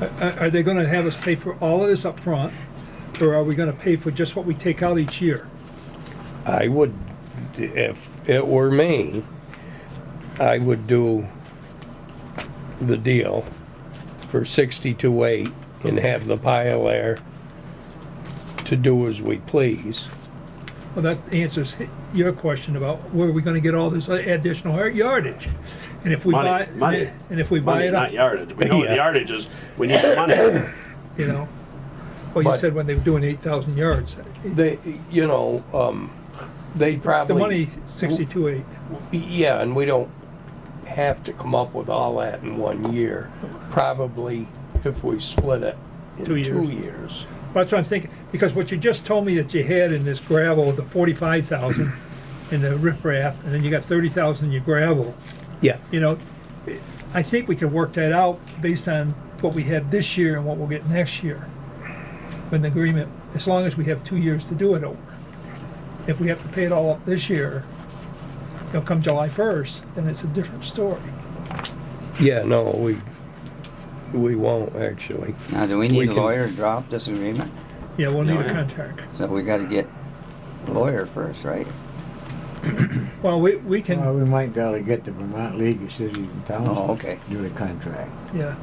Uh, Are are they gonna have us pay for all of this up front, or are we gonna pay for just what we take out each year? I would, if it were me, I would do the deal for sixty-two eight and have the pile there to do as we please. Well, that answers your question about where are we gonna get all this additional yardage? And if we buy, Money, money. and if we buy Money, it not up, yardage. We know what Yeah. the yardage is. We need the money. you know? Well, you But- said when they were doing eight thousand yards, They, you know, um, they'd the probably. money sixty-two eight. Yeah, and we don't have to come up with all that in one year. Probably if we split it in Two years. two years. That's what I'm thinking, because what you just told me that you had in this gravel, the forty-five thousand in the riprap, and then you got thirty thousand in your gravel. Yeah. you know, I think we can work that out based on what we have this year and what we'll get next year. With an agreement, as long as we have two years to do it over. If we have to pay it all up this year, you know, come July first, then it's a different story. Yeah, no, we, we won't actually. Now, do We we need a can- lawyer to drop this agreement? Yeah, we'll need a Yeah. contract. So we gotta get a lawyer first, right? Well, we, we can, Well, we might gotta get the Vermont League of Cities and Towns. Oh, okay. Do the contract. yeah,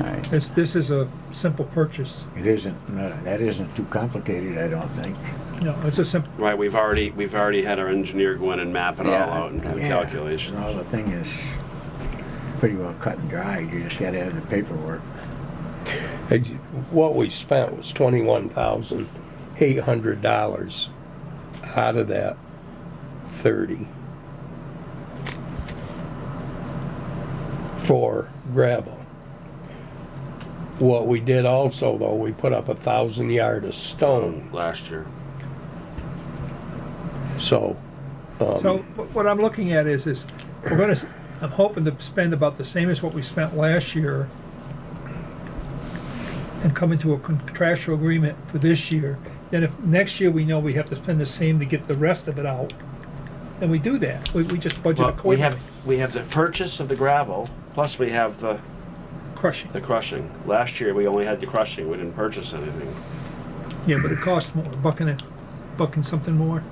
Alright, this, this is a simple purchase. It isn't, no, that isn't too complicated, I don't think. No, it's a simple, Right, we've already, we've already had our engineer go in and map it all Yeah, out and do the Yeah, calculations. Well, the thing is pretty well cut and dried, you just gotta have the paperwork. Ex- What we spent was twenty-one thousand eight hundred dollars out of that thirty. For gravel. What we did also though, we put up a thousand yard of stone, Last year. so. um, So wh- what I'm looking at is, is we're gonna, s- I'm hoping to spend about the same as what we spent last year and come into a contractual agreement for this year. Then if next year we know we have to spend the same to get the rest of it out, then we do that. We, we just budget Well, we accordingly, have, we have the purchase of the gravel, plus we have the, crushing. the crushing. Last year, we only had the crushing. We didn't purchase anything. Yeah, but it costs more, bucking it, bucking something more.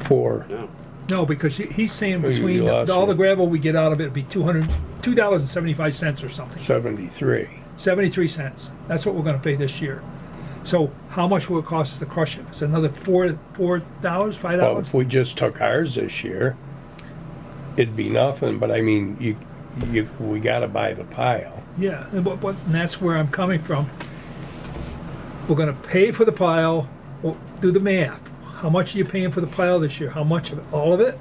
For, No. No, because he- he's saying Oh, you- you between lost all the me. gravel we get out of it, it'd be two hundred, two dollars and seventy-five cents or something. 73. 73 cents. That's what we're gonna pay this year. So how much will it cost us to crush it? It's another four, four dollars, five Well, dollars? if we just took ours this year, it'd be nothing, but I mean, you, you, we gotta buy the pile. Yeah, and what, what, and that's where I'm coming from. We're gonna pay for the pile, Well, do the math. How much are you paying for the pile this year? How much of it? All of it?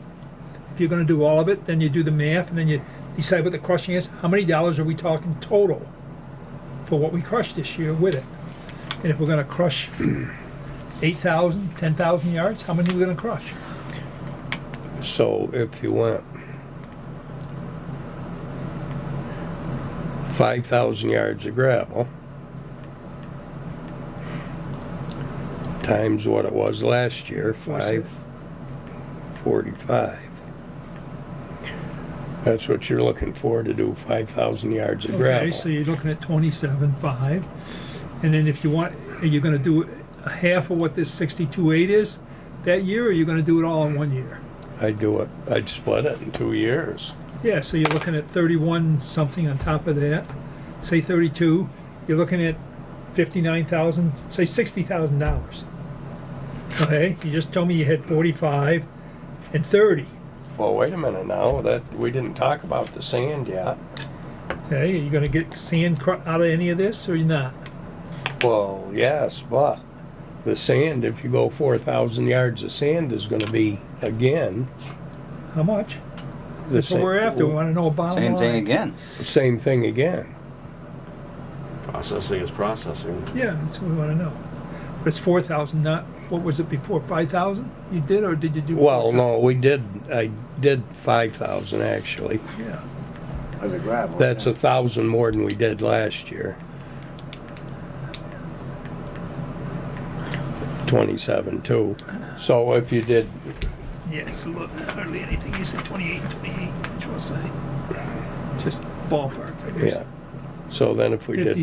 If you're gonna do all of it, then you do the math and then you decide what the crushing is. How many dollars are we talking total for what we crushed this year with it? And if we're gonna crush 8,000, 10,000 yards, how many are we gonna crush? So if you went five thousand yards of gravel times what it was last year, five forty-five. That's what you're looking for to do five thousand yards of Okay, so gravel. you're looking at twenty-seven five, and then if you want, are you gonna do a half of what this sixty-two eight is that year, or are you gonna do it all in one year? I'd do it, I'd split it in two years. Yeah, so you're looking at thirty-one something on top of that, say thirty-two, you're looking at fifty-nine thousand, say sixty thousand dollars. Okay, you just told me you had forty-five and thirty, Well, wait a minute now, that, we didn't talk about the sand yet. okay, are you gonna get sand cr- out of any of this, or you're not? Well, yes, but the sand, if you go four thousand yards of sand, is gonna be, again, How much? the That's what same. we're after, we wanna know a bottom same thing line. again. Same thing again. Processing is processing. Yeah, that's what we wanna know. But it's four thousand, not, what was it before, five thousand you did, or did you do? Well, 4,000? no, we did, I did five thousand actually. Yeah, Of the gravel. That's a thousand more than we did last year. Twenty-seven two. So if you did, yeah, so look, hardly anything, you said twenty-eight, twenty-eight, which was, uh, just ballpark figures. yeah. So then if we did